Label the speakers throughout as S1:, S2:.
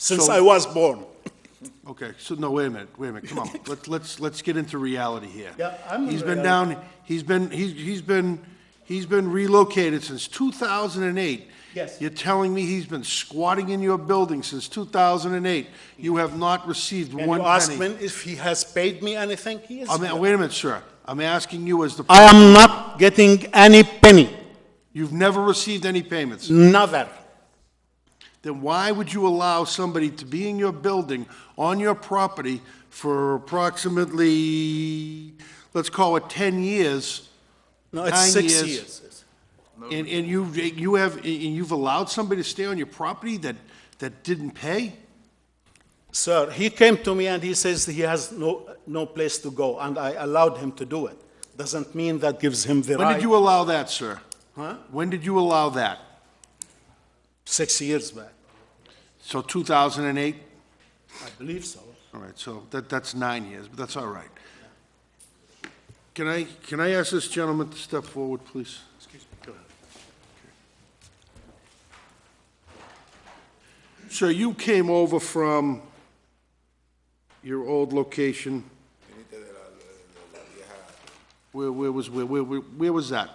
S1: since
S2: So-
S1: I was born.
S2: Okay, so, no, wait a minute, wait a minute, come on, let's, let's, let's get into reality here.
S1: Yeah, I'm
S2: He's been
S1: reality.
S2: down, he's been, he's, he's been, he's been relocated since two thousand and eight.
S1: Yes.
S2: You're telling me he's been squatting in your building since two thousand and eight? You have not received
S1: Can
S2: one
S1: you ask
S2: penny?
S1: him if he has paid me anything? He is.
S2: I mean, wait a minute, sir, I'm asking you as the,
S1: I am not getting any penny,
S2: you've never received any payments.
S1: never.
S2: Then why would you allow somebody to be in your building, on your property, for approximately, let's call it ten years?
S1: No, it's
S2: Nine
S1: six
S2: years.
S1: years.
S2: And, and you, you have, and you've allowed somebody to stay on your property that, that didn't pay?
S1: Sir, he came to me and he says he has no, no place to go, and I allowed him to do it. Doesn't mean that gives him the
S2: When
S1: right.
S2: did you allow that, sir? Huh? When did you allow that?
S1: Six years back,
S2: So 2008?
S1: I believe so.
S2: All right, so that, that's nine years, but that's all right. Can I, can I ask this gentleman to step forward, please? Excuse me. Go ahead. Sir, you came over from your old location? Where, where was, where, where, where where was that?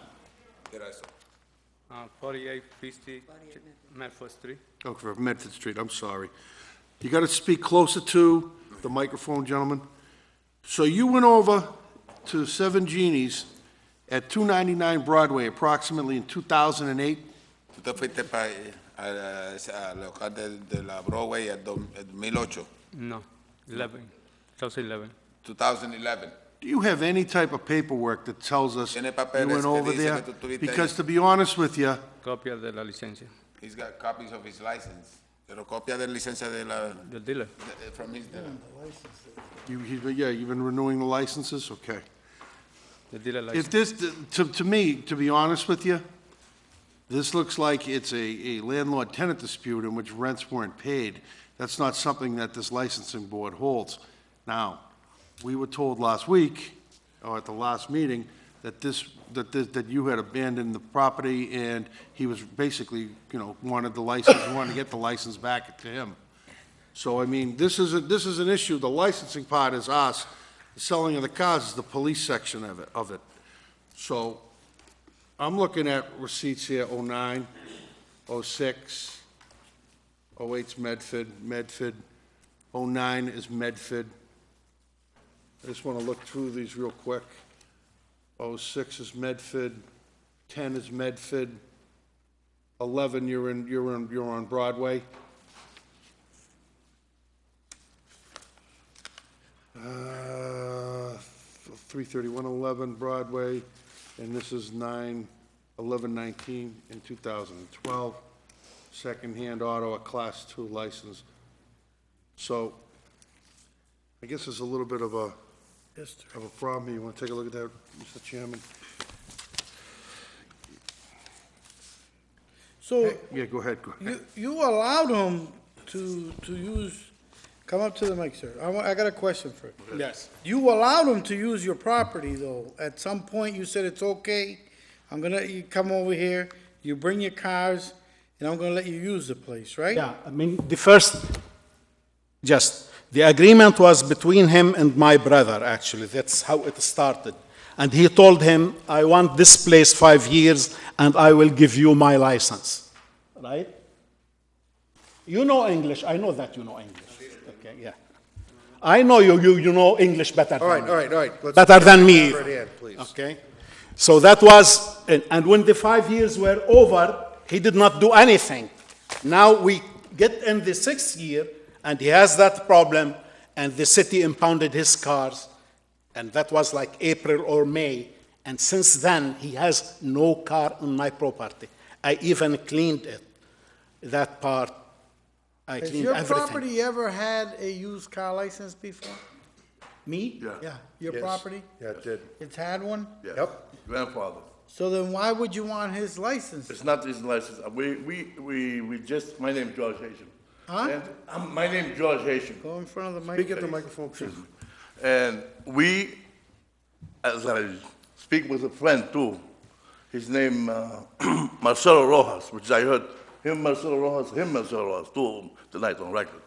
S3: Uh, 48 Christie Medford Street.
S2: Oh, for Medford Street, I'm sorry. You gotta speak closer to the microphone, gentlemen. So you went over to Seven Genies at two ninety-nine Broadway approximately in two thousand and eight?
S4: Usted fuiste eh, para a local de, de la Broadway en 2008,
S3: No, 11, 2011.
S4: 2011.
S2: Do you have any type of paperwork that tells us you
S4: Tiene papeles
S2: went
S4: que
S2: over
S4: dice
S2: there?
S4: que tú estuviste
S2: Because
S4: ahí.
S2: to be honest with you,
S3: Copia de la licencia
S4: He's got copies of his license. Pero copia de licencia de la
S3: del dealer.
S4: de- from his dealer.
S2: you, you- yeah, you've been renewing the licenses, okay.
S3: The dealer license.
S2: If this, to, to me, to be honest with you, this looks like it's a, a landlord-tenant dispute in which rents weren't paid. That's not something that this licensing board holds. Now, we were told last week, or at the last meeting, that this, that this, that you had abandoned the property and he was basically, you know, wanted the license, wanted to get the license back to him. So, I mean, this is, a- this is an issue, the licensing part is us, the selling of the cars is the police section of it, of it. So, I'm looking at receipts here, oh oh-nine, oh-six, oh-eight's oh Medford, Medford, oh-nine is Medford. I just wanna look through these real quick. Oh-six is Medford, ten is Medford, eleven, you're in, you're in, you're on Broadway. Uh, 33111 Broadway, and this is 9/11/19 in 2012, secondhand auto, a Class 2 license. So I guess there's a little bit of a, of a problem here. You want to take a look at that, Mr. Chairman?
S5: So
S2: Yeah, go ahead, go ahead.
S5: you, you allowed him to, to use, come up to the mic, sir. I, wa- I got a question for you.
S1: Yes.
S5: You allowed him to use your property though. At some point you said it's okay. I'm gonna, you come over here, you bring your cars and I'm gonna let you use the place, right?
S1: Yeah, I mean, the first, just, the agreement was between him and my brother, actually. That's how it started. And he told him, I want this place five years and I will give you my license. Right? You know English. I know that you know English. Okay, yeah. I know you, you, you know English better
S2: All
S1: than
S2: right,
S1: me.
S2: all right, all right. Let's-
S1: Better than me.
S2: Right hand, please.
S1: Okay? So that was, and, and when the five years were over, he did not do anything. Now we get in the sixth year, and he has that problem, and the city impounded his cars, and that was like April or May. And since then, he has no car on my property. I even cleaned it, that part. I
S5: Has
S1: cleaned
S5: your
S1: everything.
S5: property ever had a used car license before?
S1: Me?
S5: Yeah, your
S2: Yes.
S5: property?
S2: Yeah, it did.
S5: It's had one?
S6: Yep. Grandfather.
S5: So then why would you want his license?
S6: It's not his license. We, we, we, we just, my name George Haitian.
S5: Huh?
S6: And, um, my name George Haitian.
S5: Go in front of the mic.
S2: Speak at the microphone, please.
S6: And we, as I speak with a friend too, his name uh, Marcelo Rojas, which I heard him, Marcelo Rojas, him, Marcelo Rojas, two of 'em tonight on record.